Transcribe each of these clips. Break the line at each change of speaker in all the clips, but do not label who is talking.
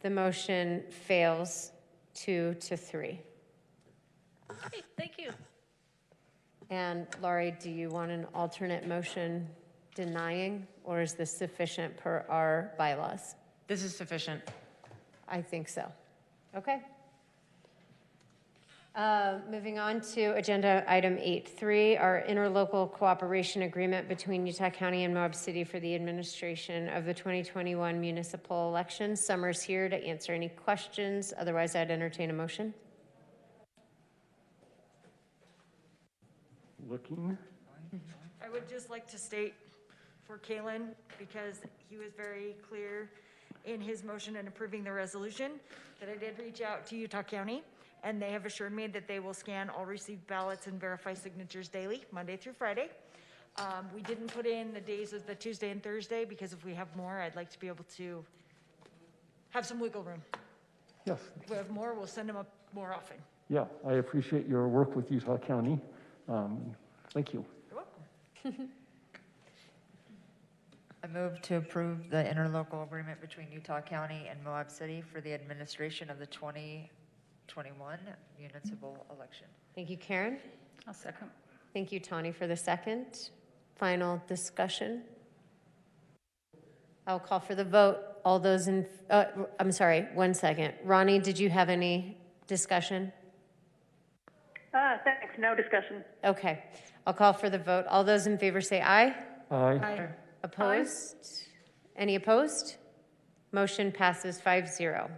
The motion fails two to three.
Okay, thank you.
And Laurie, do you want an alternate motion denying, or is this sufficient per our bylaws?
This is sufficient.
I think so. Okay. Uh, Moving on to Agenda Item 8.3, our interlocal cooperation agreement between Utah County and Moab City for the administration of the 2021 municipal election. Summer's here to answer any questions, otherwise I'd entertain a motion.
Looking,
I would just like to state for Kalen, because he was very clear in his motion in approving the resolution, that I did reach out to Utah County, and they have assured me that they will scan all received ballots and verify signatures daily, Monday through Friday. Um, We didn't put in the days of the Tuesday and Thursday, because if we have more, I'd like to be able to have some wiggle room.
yes,
If we have more, we'll send them up more often.
yeah, I appreciate your work with Utah County. Um, Thank you.
You're welcome.
I move to approve the interlocal agreement between Utah County and Moab City for the administration of the 2021 municipal election.
Thank you, Karen.
I'll second.
Thank you, Tawny, for the second. Final discussion. I'll call for the vote. All those in, uh, I'm sorry, one second. Ronnie, did you have any discussion?
Uh, thanks, no discussion.
Okay, I'll call for the vote. All those in favor say aye.
Aye,
Opposed? Any opposed? Motion passes 5-0.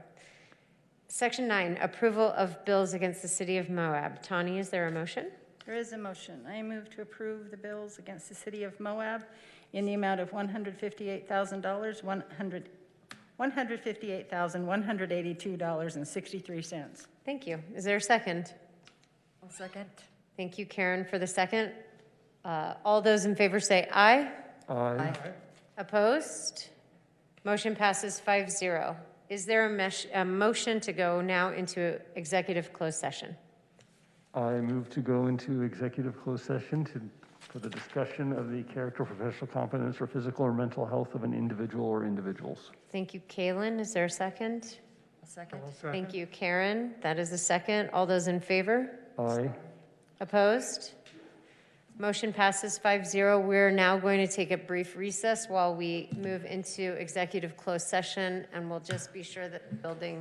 Section nine, approval of bills against the city of Moab. Tawny, is there a motion?
There is a motion. I move to approve the bills against the city of Moab in the amount of $158,000, 100 $158,182.63.
Thank you. Is there a second?
I'll second.
Thank you, Karen, for the second. Uh, All those in favor say aye.
aye,
Aye.
Opposed? Motion passes 5-0. Is there a mesh, a motion to go now into executive closed session?
I move to go into executive closed session to, for the discussion of the character, professional competence, or physical or mental health of an individual or individuals.
Thank you, Kalen. Is there a second?
I'll second.
Thank you, Karen. That is a second. All those in favor?
Aye,
Opposed? Motion passes 5-0. zero. We're now going to take a brief recess while we move into executive closed session, and we'll just be sure that the building